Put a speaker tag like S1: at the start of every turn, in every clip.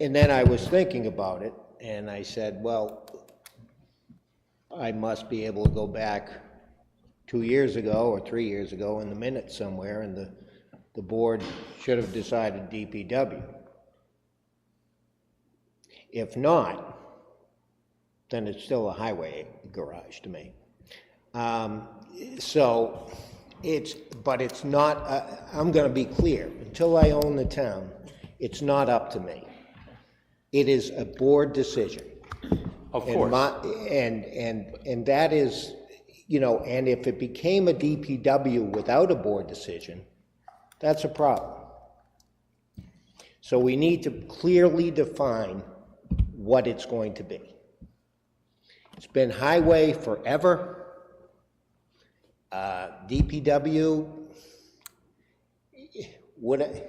S1: And then I was thinking about it, and I said, well, I must be able to go back two years ago or three years ago in the minutes somewhere, and the, the board should have decided DPW. If not, then it's still a highway garage to me. Um, So it's, but it's not, uh, I'm going to be clear, until I own the town, it's not up to me. It is a board decision.
S2: Of
S1: And
S2: course.
S1: my- And, and, and that is, you know, and if it became a DPW without a board decision, that's a problem. So we need to clearly define what it's going to be. It's been highway forever. Uh, DPW, would I,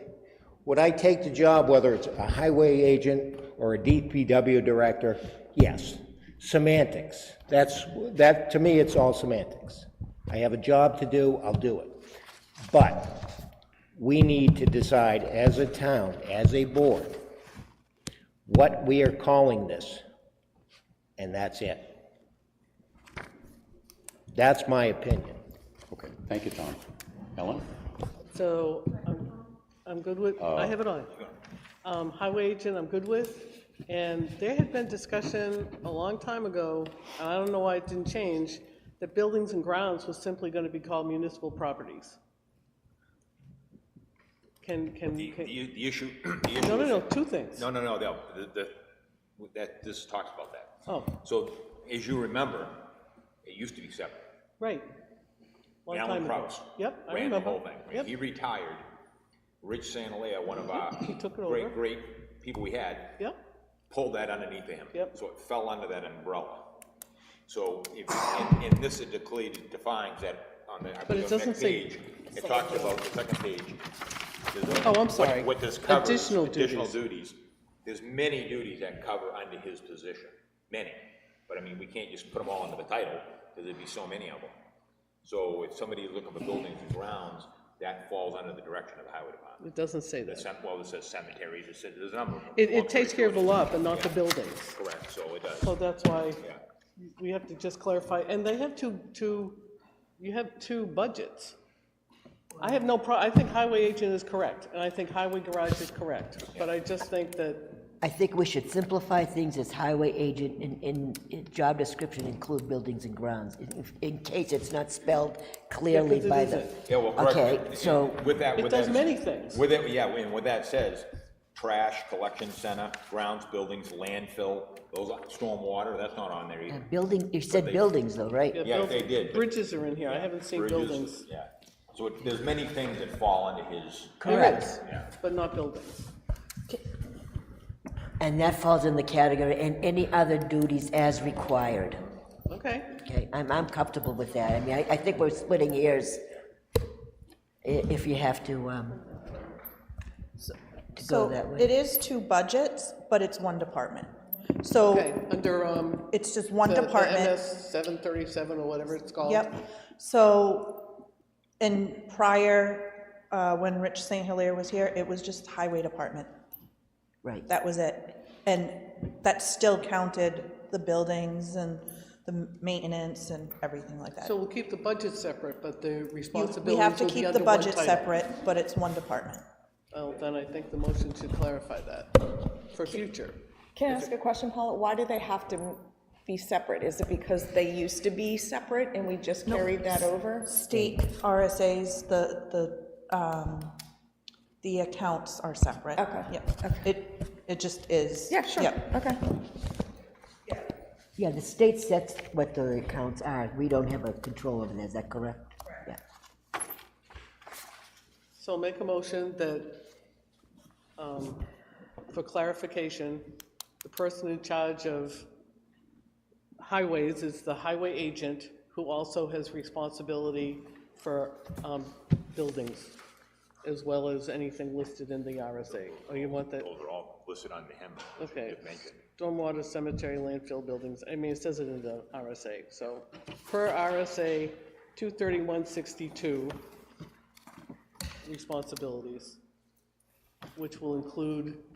S1: would I take the job, whether it's a highway agent or a DPW director? Yes. Semantics. That's, that, to me, it's all semantics. I have a job to do, I'll do it. But we need to decide as a town, as a board, what we are calling this, and that's it. That's my opinion.
S2: Okay, thank you, Tom. Ellen?
S3: So I'm, I'm good with, I have it on. Um, Highway agent, I'm good with. And there had been discussion a long time ago, and I don't know why it didn't change, that buildings and grounds was simply going to be called municipal properties. Can, can,
S4: The,
S3: can-
S4: the the issue, the issue.
S3: no, no,
S4: is-
S3: no, two things.
S4: No, no, no, no, the, the, that, this talks about that.
S3: Oh,
S4: So, as you remember, it used to be separate.
S3: right. Long time
S4: Alan
S3: ago.
S4: Kraus.
S3: Yep, I
S4: Ran the whole
S3: remember.
S4: thing. I mean,
S3: Yep. Mm-hmm.
S4: He retired. Rich Santalea, one of our
S3: He took it over.
S4: great, great people we had,
S3: Yep,
S4: pulled that underneath him.
S3: Yep.
S4: So it fell under that umbrella. So if, and, and this is declared, defines that on the, I believe on the
S3: doesn't
S4: next
S3: say-
S4: page. It talks about the second page. There's a-
S3: Oh, I'm
S4: what-
S3: sorry.
S4: What this covers.
S3: Additional
S4: Additional duties. There's many duties that cover under his position, many. But I mean, we can't just put them all under the title, because there'd be so many of them. So if somebody is looking for buildings and grounds, that falls under the direction of the highway department.
S3: it doesn't say
S4: The
S3: that.
S4: cem- Well, it says cemeteries, it says, there's a number of them.
S3: It,
S4: Long
S3: it takes
S4: story
S3: care of the
S4: short,
S3: lot, but not the buildings.
S4: Correct, so it does,
S3: So that's why
S4: yeah.
S3: we have to just clarify, and they have two, two, you have two budgets. I have no pro, I think highway agent is correct, and I think highway garage is correct, but I just think that,
S5: I think we should simplify things as highway agent in, in, in job description include buildings and grounds, in, in case it's not spelled
S3: Yeah,
S5: clearly
S3: 'cause it
S5: by the.
S3: isn't.
S4: Yeah, well, correct.
S5: Okay, so,
S4: With that,
S3: it
S4: with that.
S3: does many things.
S4: With it, yeah, and what that says, trash, collection center, grounds, buildings, landfill, those, are- stormwater, that's not on there
S5: uh,
S4: either.
S5: building, you said buildings though, right?
S4: Yeah,
S3: build-
S4: they did, but-
S3: Bridges are in here, I haven't seen
S4: Bridges,
S3: buildings.
S4: Yeah, so it- there's many things that fall under his,
S5: Correct.
S3: There is,
S4: Yeah.
S3: But not buildings.
S5: And that falls in the category, and any other duties as required.
S3: Okay,
S5: Okay, I'm, I'm comfortable with that. I mean, I, I think we're splitting hairs i- if you have to, um, to go that
S6: So it
S5: way.
S6: is two budgets, but it's one department. So
S3: okay, under, um.
S6: it's just one
S3: the- the
S6: department.
S3: MS seven thirty-seven or whatever it's called.
S6: Yep. So in prior, uh, when Rich St. Hilaire was here, it was just highway department.
S5: Right,
S6: That was it. And that still counted the buildings and the maintenance and everything like that.
S3: So we'll keep the budget separate, but the
S6: You-
S3: responsibilities
S6: We have to
S3: will be
S6: keep the
S3: under one
S6: budget
S3: title.
S6: separate, but it's one department.
S3: Well, then I think the motion should clarify that for future.
S7: Can I ask a question, Paula? Why do they have to be separate? Is it because they used to be separate and we just carried that over?
S6: State RSAs, the, the, um, the accounts are separate.
S7: Okay,
S6: Yep. It, it just is.
S7: Yeah, sure,
S6: Yep.
S7: okay.
S5: yeah, the state sets what the accounts are. We don't have a control over that, is that correct? Yeah.
S3: So make a motion that, um, for clarification, the person in charge of highways is the highway agent, who also has responsibility for um, buildings, as well as anything listed in the RSA. Or Oh, you want that,
S4: those are all listed under him.
S3: okay.
S4: Just mentioned.
S3: Stormwater, cemetery, landfill buildings, I mean, it says it in the RSA. So per RSA 23162, responsibilities, which will include